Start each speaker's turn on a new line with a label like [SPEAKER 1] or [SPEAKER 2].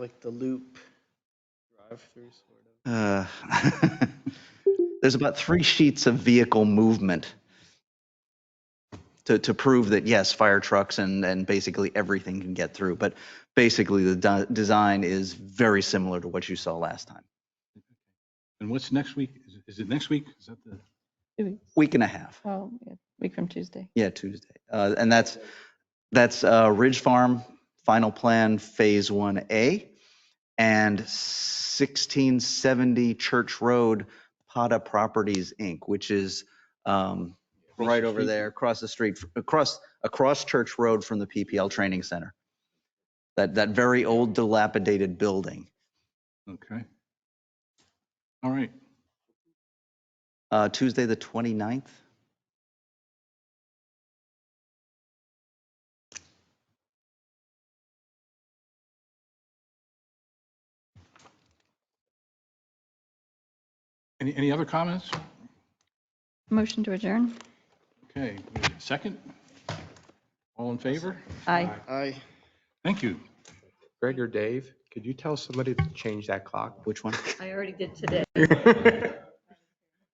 [SPEAKER 1] like the loop drive-through sort of.
[SPEAKER 2] Uh, There's about three sheets of vehicle movement to, to prove that, yes, fire trucks and, and basically everything can get through. But basically, the de- design is very similar to what you saw last time.
[SPEAKER 3] And what's next week? Is it- Is it next week? Is that the,
[SPEAKER 4] Two weeks.
[SPEAKER 2] Week and a half.
[SPEAKER 4] Oh, yeah, week from Tuesday.
[SPEAKER 2] Yeah, Tuesday. Uh, and that's, that's uh, Ridge Farm, final plan, phase 1A, and 1670 Church Road, Pata Properties, Inc., which is um, right
[SPEAKER 3] the
[SPEAKER 2] over
[SPEAKER 3] street?
[SPEAKER 2] there, across the street, across, across Church Road from the PPL Training Center. That, that very old dilapidated building.
[SPEAKER 3] okay. All right.
[SPEAKER 2] Uh, Tuesday, the 29th.
[SPEAKER 3] Any, any other comments?
[SPEAKER 4] Motion to adjourn?
[SPEAKER 3] Okay, second? All in favor?
[SPEAKER 4] Aye.
[SPEAKER 1] I.
[SPEAKER 3] Thank you.
[SPEAKER 5] Greg or Dave, could you tell somebody to change that clock?
[SPEAKER 2] Which one?
[SPEAKER 4] I already did today.